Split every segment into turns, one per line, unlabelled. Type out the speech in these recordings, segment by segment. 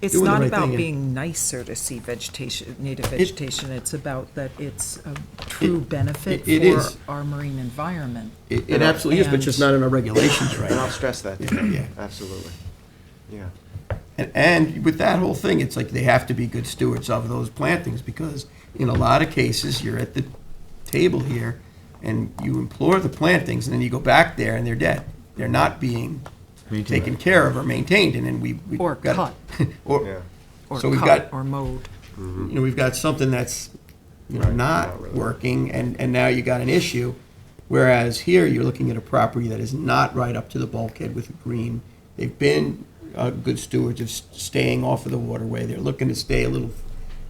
It's
doing the
not
right
about
thing and-
being nicer to see vegetation, native vegetation, it's about that it's a true benefit
it- it is.
for our marine environment.
It it absolutely is, but just not in our regulations right
And I'll
now.
stress that, to
Yeah,
them.
yeah.
absolutely. Yeah,
And- And with that whole thing, it's like they have to be good stewards of those plantings, because in a lot of cases, you're at the table here, and you implore the plantings, and then you go back there and they're dead. They're not being taken care of or maintained, and then we. we've
Or
got-
cut.
Or,
yeah.
Or
so we've
cut,
got,
or mowed.
you know, we've got something that's, you know,
Right, not
not
really.
working, and, and now you got an issue. Whereas here, you're looking at a property that is not right up to the bulkhead with a green. They've been uh, good stewards of s- staying off of the waterway. They're looking to stay a little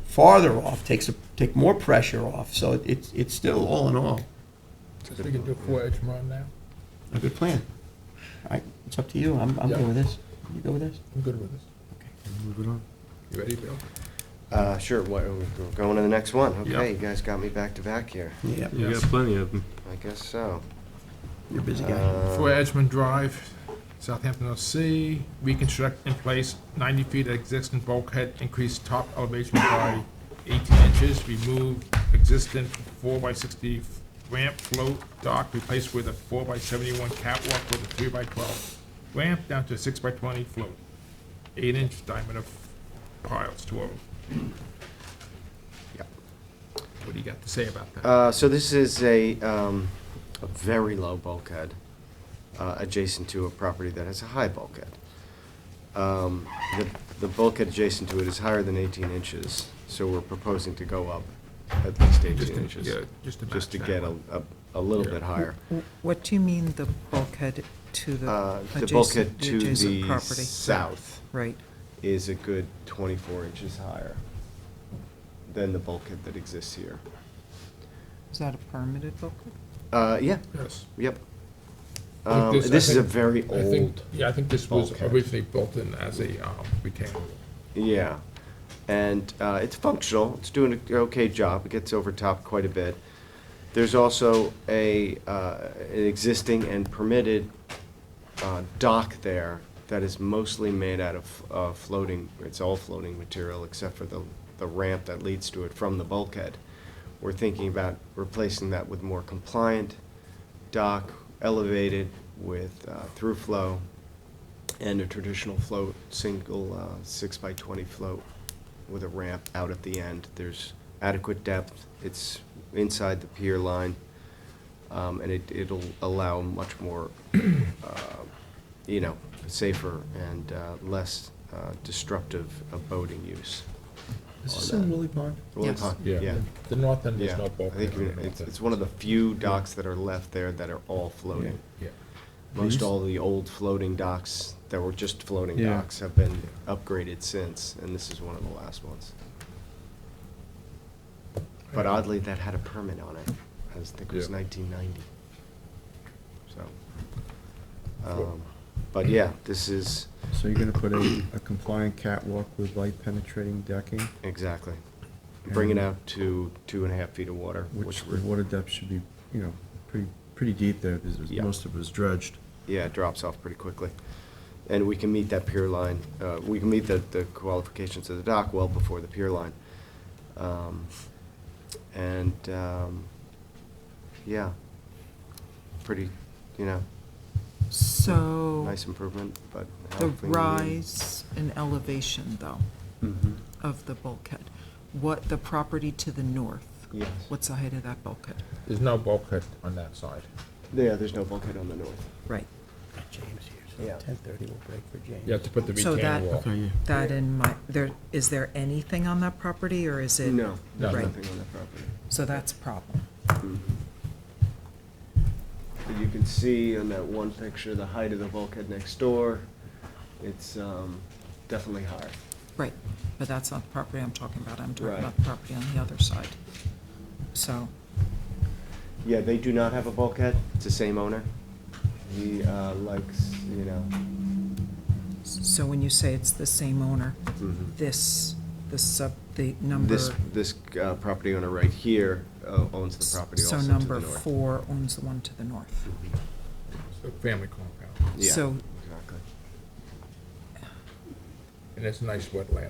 farther off, takes, a- take more pressure off. So it- it's, it's still, all in all,
We can do a four-edge run now.
a good plan. All right, it's up to you. I'm, I'm
Yeah.
good with this. You go with this?
I'm good with this. You ready, Bill?
Uh, sure, what, we're going to the next one, okay,
Yeah.
you guys got me back to back here,
Yeah,
You got plenty of them.
I guess so.
you're a busy guy.
Uh,
Four Edgemont Drive, Southampton, OC. Reconstruct and place ninety feet of existing bulkhead, increase top elevation by eighteen inches, remove existing four by sixty ramp float dock, replace with a four by seventy-one catwalk with a three by twelve ramp down to a six by twenty float, eight-inch diameter piles, two of them. Yep. What do you got to say about that?
Uh, so this is a, um, a very low bulkhead, uh, adjacent to a property that has a high bulkhead. Um, the, the bulkhead adjacent to it is higher than eighteen inches, so we're proposing to go up at least
Just
eighteen
to-
inches.
yeah, just to match that
get a,
one.
a, a little
Yeah.
bit higher.
W- What do you mean the bulkhead to the
Uh, the
adjacent,
bulkhead
the
to
adjacent
the
property?
south
Right,
is a good twenty-four inches higher than the bulkhead that exists here.
is that a permitted bulkhead?
Uh, yeah,
Yes.
yep.
I think
Um,
this- I
this is a
think-
very
I think-
old
Yeah, I think this was
bulkhead.
originally built in as a um, retaining wall.
Yeah, and uh, it's functional. It's doing an okay job. It gets overtopped quite a bit. There's also a uh, an existing and permitted uh, dock there that is mostly made out of uh, floating. It's all floating material except for the the ramp that leads to it from the bulkhead. We're thinking about replacing that with more compliant dock, elevated with uh, through flow, and a traditional float, single uh, six by twenty float with a ramp out at the end. There's adequate depth. It's inside the pier line, um, and it, it'll allow much more, uh, you know, safer and uh, less uh, destructive of boating use.
Is
on
this
that.
in Woolly Pond?
Really
Yes.
con-
Yeah,
Yeah,
the north end is
yeah.
not
I
bulkhead.
think
on the
it's,
north end.
it's one of the few docks that are left there that are all floating.
Yeah.
Most all the old floating docks that were just floating
Yeah.
docks have been upgraded since, and this is one of the last ones. But oddly, that had a permit on it. I was- think it was
Yeah.
nineteen ninety. So. um, But yeah, this is,
So you're gonna put a, a compliant catwalk with light penetrating decking,
exactly. Bring it
And-
out to two and a half feet of water,
which
which
the
we're,
water depth should be, you know, pretty, pretty deep there, because there's-
Yeah.
most of it was dredged.
yeah, it drops off pretty quickly. And we can meet that pier line, uh, we can meet the, the qualifications of the dock well before the pier line. Um, And, um, yeah, pretty, you know,
So,
nice improvement, but. I
the
don't think we need-
rise in elevation though,
Mm-hmm.
of the bulkhead, what, the property to the north,
Yes.
what's the height of that bulkhead?
There's no bulkhead on that side.
Yeah, there's no bulkhead on the north.
Right,
James here,
Yeah.
so ten thirty will break for James.
You have to put the
So that-
retaining wall.
that in my, there, is there anything on that property, or is it?
No, there's
No.
nothing on that property.
So that's a problem.
But you can see on that one picture, the height of the bulkhead next door, it's, um, definitely higher.
Right, but that's not the property I'm talking about. I'm talking
Right.
about the property on the other side. So,
Yeah, they do not have a bulkhead. It's the same owner. He uh, likes, you know.
so when you say it's the same owner, Mm-hmm. this, the sub, the number.
This, this uh, property owner right here uh, owns the property also
So
to the
number
north.
four owns the one to the north.
It's a Family compound.
Yeah,
so-
exactly.
and it's nice wetland.